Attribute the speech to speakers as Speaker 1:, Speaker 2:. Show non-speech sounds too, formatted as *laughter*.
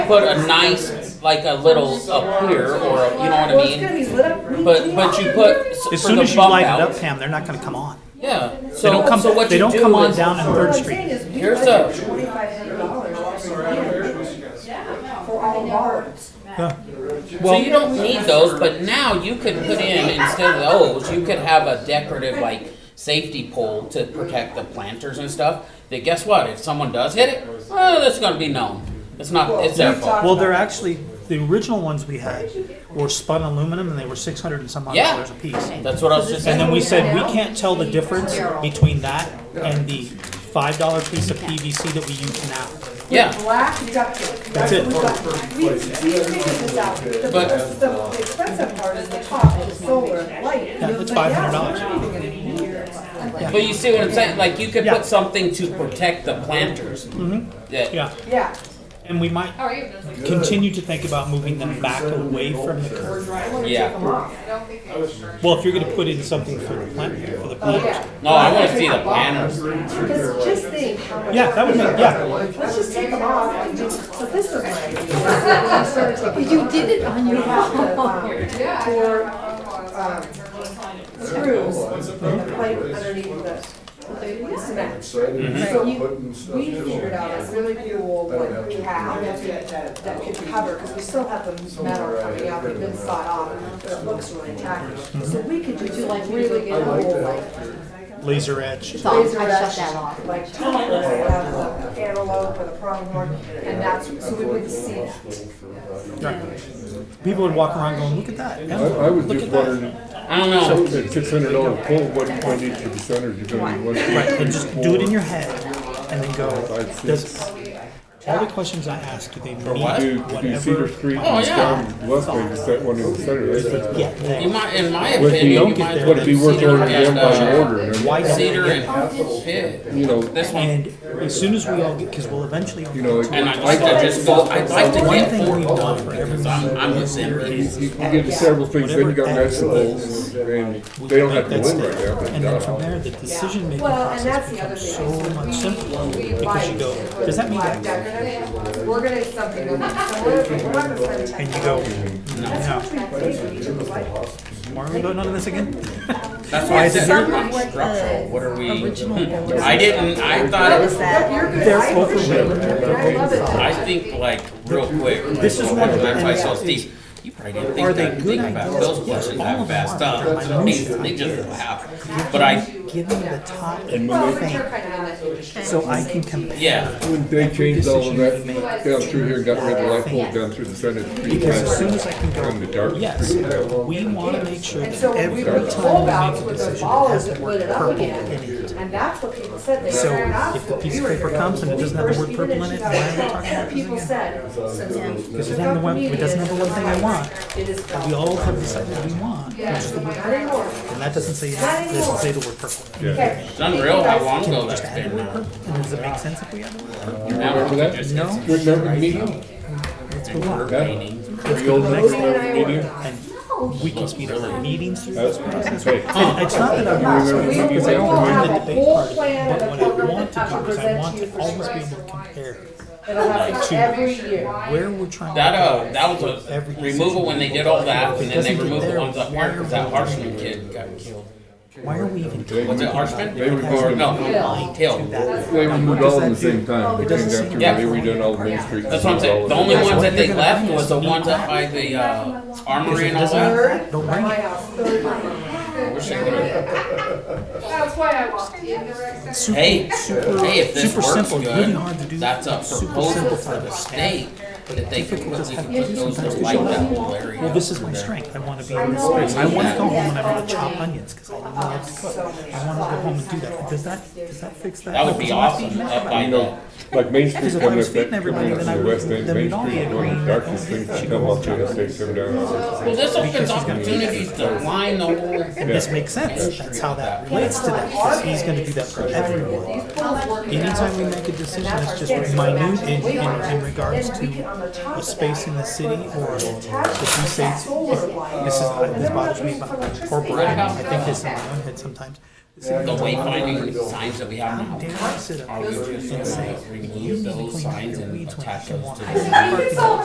Speaker 1: put a nice, like a little up here, or a- you know what I
Speaker 2: Well, it's gonna
Speaker 1: mean?
Speaker 2: be lit up really
Speaker 1: But, but you put, s- for
Speaker 3: As soon
Speaker 1: the
Speaker 3: as you
Speaker 1: bump
Speaker 3: light it up,
Speaker 1: out.
Speaker 3: Pam, they're not gonna come on.
Speaker 1: Yeah,
Speaker 3: They don't
Speaker 1: so, so
Speaker 3: come,
Speaker 1: what
Speaker 3: they
Speaker 1: you
Speaker 3: don't come
Speaker 1: do
Speaker 3: on
Speaker 1: is,
Speaker 3: down on
Speaker 2: What
Speaker 3: Third
Speaker 2: I'm
Speaker 3: Street.
Speaker 2: saying is, we
Speaker 1: Here's
Speaker 2: budget
Speaker 1: a-
Speaker 2: twenty-five hundred dollars every year for all bars.
Speaker 1: so you don't need those, but now you could put in, instead of those, you could have a decorative, like, safety pole to protect the planters and stuff. That guess what, if someone does hit it, well, that's gonna be known. It's not, it's their fault.
Speaker 3: Well, they're actually, the original ones we had were spun aluminum and they were six hundred and some odd
Speaker 1: Yeah.
Speaker 3: dollars a piece.
Speaker 1: That's what I was just saying.
Speaker 3: And then we said, we can't tell the difference between that and the five dollar piece of PVC that we use now.
Speaker 1: *laughs* Yeah,
Speaker 2: Black deductible. That's
Speaker 3: it.
Speaker 2: what we've got. We, we've figured this out. The,
Speaker 1: But-
Speaker 2: the- the expensive part is the top, the solar, the light.
Speaker 3: Yeah, that's
Speaker 2: But yeah,
Speaker 3: $500.
Speaker 2: so we're not even gonna hear it.
Speaker 1: but you see what I'm saying, like, you could
Speaker 3: Yeah.
Speaker 1: put something to protect the planters. That-
Speaker 3: Mm-hmm, Yeah,
Speaker 2: Yeah,
Speaker 3: and we might continue to think about moving them back away from the curb.
Speaker 1: yeah.
Speaker 3: Well, if you're gonna put in something for the plant, for
Speaker 2: oh,
Speaker 3: the planters.
Speaker 2: yeah.
Speaker 1: No, I wanna see the planters.
Speaker 2: Because just think how much.
Speaker 3: Yeah, that would be, yeah,
Speaker 2: Let's just take them off and do, so this is my
Speaker 4: You did it on your own.
Speaker 2: for, um, screws, the pipe underneath the cement. So
Speaker 4: You-
Speaker 2: you, we figured out a really cool one we have that could cover, because we still have the metal coming out, we've been sawed off, but it looks really tacky. So we could do like really cool, like
Speaker 3: laser edge.
Speaker 4: It's on. I shut
Speaker 2: Razor-edge,
Speaker 4: that off.
Speaker 2: Like top of the antelope or the pronghorn, and that's, so we would see that.
Speaker 3: People would walk around going, look at that.
Speaker 5: I, I was
Speaker 3: Look
Speaker 5: just
Speaker 3: at that.
Speaker 5: wondering,
Speaker 1: I don't know.
Speaker 5: at six hundred dollar pole, what, what each of the centers you're gonna be, what?
Speaker 3: Right, and just do it in your head and then go,
Speaker 5: Five feet.
Speaker 3: does, all the questions I asked, do they meet
Speaker 1: what?
Speaker 5: Do, do Cedar
Speaker 3: whatever?
Speaker 5: Street
Speaker 1: Oh,
Speaker 5: and
Speaker 1: yeah.
Speaker 5: down West Bay, is that one in the center? That's just-
Speaker 3: Yeah,
Speaker 1: You
Speaker 3: there.
Speaker 1: might, in my
Speaker 5: Would it be,
Speaker 1: opinion, you might as
Speaker 3: there.
Speaker 5: would it
Speaker 1: well
Speaker 5: be worth
Speaker 1: cedar
Speaker 5: ordering them
Speaker 1: and,
Speaker 5: by
Speaker 1: uh,
Speaker 5: order? and
Speaker 3: Why don't
Speaker 1: Cedar
Speaker 3: they
Speaker 1: and pit.
Speaker 5: You know,
Speaker 1: This one,
Speaker 3: And as soon as we all get, because we'll eventually. all
Speaker 5: you know,
Speaker 1: and I
Speaker 5: like,
Speaker 1: just, I just go, I'd like to
Speaker 3: One
Speaker 1: get
Speaker 3: thing
Speaker 1: four
Speaker 3: we've done for
Speaker 1: because I'm, I'm with Henry.
Speaker 5: you can get several things, then you got vegetables, and they don't have to
Speaker 3: That's
Speaker 5: win right
Speaker 3: there.
Speaker 5: now, but. uh,
Speaker 3: And then from there, the decision making
Speaker 2: Well, and
Speaker 3: process
Speaker 2: that's the other
Speaker 3: becomes
Speaker 2: thing.
Speaker 3: so much
Speaker 2: is
Speaker 3: simpler.
Speaker 2: we- we
Speaker 3: because you
Speaker 2: like
Speaker 3: go,
Speaker 2: it when
Speaker 3: does that mean
Speaker 2: black
Speaker 3: that?
Speaker 2: decorative, We're gonna do something, with it. so we're, we're not gonna spend time.
Speaker 3: And you go,
Speaker 2: That's
Speaker 3: no,
Speaker 2: what we pay for each of the lights.
Speaker 3: why are we voting on this again?
Speaker 1: That's why I said,
Speaker 4: Some
Speaker 1: you're
Speaker 4: of
Speaker 1: on
Speaker 4: what
Speaker 1: structural, what are we?
Speaker 4: uh, original was.
Speaker 1: I didn't, I thought,
Speaker 4: That-
Speaker 2: You're good.
Speaker 3: They're
Speaker 2: I appreciate it, and I love it.
Speaker 1: I think like real quick. This
Speaker 3: is one of the-
Speaker 1: That's why I saw Steve. You probably didn't
Speaker 3: Are
Speaker 1: think
Speaker 3: they
Speaker 1: that,
Speaker 3: good
Speaker 1: think about
Speaker 3: ideas?
Speaker 1: those questions
Speaker 3: All
Speaker 1: that
Speaker 3: of them
Speaker 1: fast
Speaker 3: are.
Speaker 1: up. They, they just happen. But I,
Speaker 3: Give me the top
Speaker 2: Well, but
Speaker 3: thing,
Speaker 2: you're kind of in that industry.
Speaker 3: so I can compare.
Speaker 1: yeah,
Speaker 5: When they changed all of that
Speaker 3: Decision
Speaker 5: down through here, and got rid of light pole down through the center.
Speaker 3: Because as soon as I can
Speaker 5: On the
Speaker 3: go,
Speaker 5: dark
Speaker 3: yes,
Speaker 5: street.
Speaker 3: we want to make sure
Speaker 2: And so
Speaker 3: that
Speaker 2: when
Speaker 3: every
Speaker 2: we
Speaker 3: time
Speaker 2: were full outs
Speaker 3: we make a
Speaker 2: with those
Speaker 3: decision, it has
Speaker 2: balls
Speaker 3: the
Speaker 2: that lit
Speaker 3: word
Speaker 2: it up
Speaker 3: purple
Speaker 2: again,
Speaker 3: in it.
Speaker 2: and that's what people said, they
Speaker 3: So
Speaker 2: ran out.
Speaker 3: if the piece of paper comes and it doesn't have the word purple in it, why are we talking about
Speaker 2: People
Speaker 3: this
Speaker 2: said,
Speaker 3: again?
Speaker 2: since we
Speaker 3: Because
Speaker 2: took
Speaker 3: it doesn't have
Speaker 2: out
Speaker 3: the
Speaker 2: the
Speaker 3: one, it doesn't have the one thing I want.
Speaker 2: media, It is.
Speaker 3: We all have decided we want, which is the word
Speaker 2: Not
Speaker 3: purple.
Speaker 2: anymore.
Speaker 3: And that doesn't say,
Speaker 2: Not
Speaker 3: that doesn't say the word purple.
Speaker 2: Okay.
Speaker 1: it's unreal how long
Speaker 3: Can
Speaker 1: ago
Speaker 3: we
Speaker 1: that's
Speaker 3: just add
Speaker 1: been uh,
Speaker 3: the word
Speaker 1: now.
Speaker 3: purple? And does it make sense if we add the word purple?
Speaker 5: Remember that?
Speaker 3: No.
Speaker 5: Remember the meeting?
Speaker 1: Remaining.
Speaker 5: The old meeting?
Speaker 3: And we can speed up our meetings through
Speaker 5: That's
Speaker 3: this
Speaker 5: what
Speaker 3: process.
Speaker 5: Hey,
Speaker 3: And it's not that I'm not
Speaker 2: So we
Speaker 3: concerned,
Speaker 2: we
Speaker 3: because I
Speaker 2: will
Speaker 3: don't mind
Speaker 2: have
Speaker 3: the
Speaker 2: a
Speaker 3: debate
Speaker 2: whole
Speaker 3: part,
Speaker 2: plan and
Speaker 3: but
Speaker 2: a
Speaker 3: what I
Speaker 2: program
Speaker 3: want
Speaker 2: that
Speaker 3: to do
Speaker 2: I will
Speaker 3: is I
Speaker 2: present
Speaker 3: want
Speaker 2: to you
Speaker 3: to
Speaker 2: for
Speaker 3: always
Speaker 2: sure.
Speaker 3: be able to compare
Speaker 2: It'll happen
Speaker 3: to
Speaker 2: every year.
Speaker 3: where we're trying.
Speaker 1: That,
Speaker 3: to
Speaker 1: uh, that was a
Speaker 3: Every
Speaker 1: removal when they did all that, and then they
Speaker 3: Doesn't get
Speaker 1: removed the
Speaker 3: there.
Speaker 1: ones that weren't, because that Harshman kid got killed.
Speaker 3: go. Why are we even?
Speaker 1: Was it Harshman?
Speaker 5: They were
Speaker 1: Or
Speaker 5: going,
Speaker 1: no,
Speaker 3: Why
Speaker 1: Hill.
Speaker 3: do that?
Speaker 5: they were moved all at the same time. They came down through,
Speaker 1: Yeah.
Speaker 5: they redone all the main streets.
Speaker 1: That's what I'm saying. The only
Speaker 5: All
Speaker 1: ones that
Speaker 3: You're
Speaker 1: they
Speaker 3: gonna
Speaker 1: left
Speaker 3: find
Speaker 1: was
Speaker 3: us
Speaker 1: the
Speaker 3: meat
Speaker 1: ones up by
Speaker 3: pie.
Speaker 1: the uh, armory and all
Speaker 3: Doesn't
Speaker 1: that.
Speaker 3: matter. Don't bring
Speaker 2: My
Speaker 3: it.
Speaker 2: house, third time.
Speaker 1: We're sitting there,
Speaker 2: That's why I walked in the rec center.
Speaker 3: Super-
Speaker 1: Hey,
Speaker 3: super-
Speaker 1: hey, if this
Speaker 3: super
Speaker 1: works
Speaker 3: simple, really hard to
Speaker 1: good,
Speaker 3: do.
Speaker 1: that's a
Speaker 3: Super
Speaker 1: proposal
Speaker 3: simple
Speaker 1: for
Speaker 3: for
Speaker 1: the
Speaker 3: the
Speaker 1: state that they could put, we
Speaker 3: just
Speaker 1: could
Speaker 3: have to
Speaker 1: put
Speaker 3: do
Speaker 1: those
Speaker 3: sometimes
Speaker 1: that
Speaker 3: to
Speaker 1: like
Speaker 3: show
Speaker 1: that
Speaker 3: them.
Speaker 1: whole area.
Speaker 3: Well, this is my strength. I want to be in this space. I want to go home and I want to chop onions because I don't know how to cook. I want to go home and do that. Does that, does that fix that?
Speaker 1: That would be
Speaker 3: Do I feel
Speaker 1: awesome,
Speaker 3: mad
Speaker 1: up
Speaker 3: about
Speaker 1: by
Speaker 3: it?
Speaker 1: the,
Speaker 5: Like Main Street
Speaker 3: Because if I
Speaker 5: coming
Speaker 3: was
Speaker 5: up
Speaker 3: feeding
Speaker 5: that-
Speaker 3: everybody,
Speaker 5: coming up
Speaker 3: then I
Speaker 5: to the west
Speaker 3: would-
Speaker 5: end,
Speaker 3: then
Speaker 5: Main
Speaker 3: we'd all be
Speaker 5: Street,
Speaker 3: agreeing
Speaker 5: one of the
Speaker 3: that
Speaker 5: Darkest
Speaker 3: those
Speaker 5: things
Speaker 3: things
Speaker 5: that
Speaker 3: should
Speaker 5: come
Speaker 3: go
Speaker 5: up to us, they come down.
Speaker 1: well, this opens
Speaker 3: Because he's gonna-
Speaker 1: opportunities to line the whole.
Speaker 3: And this makes sense. That's how that relates to that. because He's going to do that for everyone. Anytime we make a decision that's just minute in, in, in regards to
Speaker 2: a
Speaker 3: a space in the city or if you say, this is, this bothers me about corporate, I think this in my own head sometimes. The city
Speaker 1: The wayfinding signs that we have now.
Speaker 3: dare I sit up
Speaker 1: Are we just gonna remove those signs and attach those to the?
Speaker 3: here?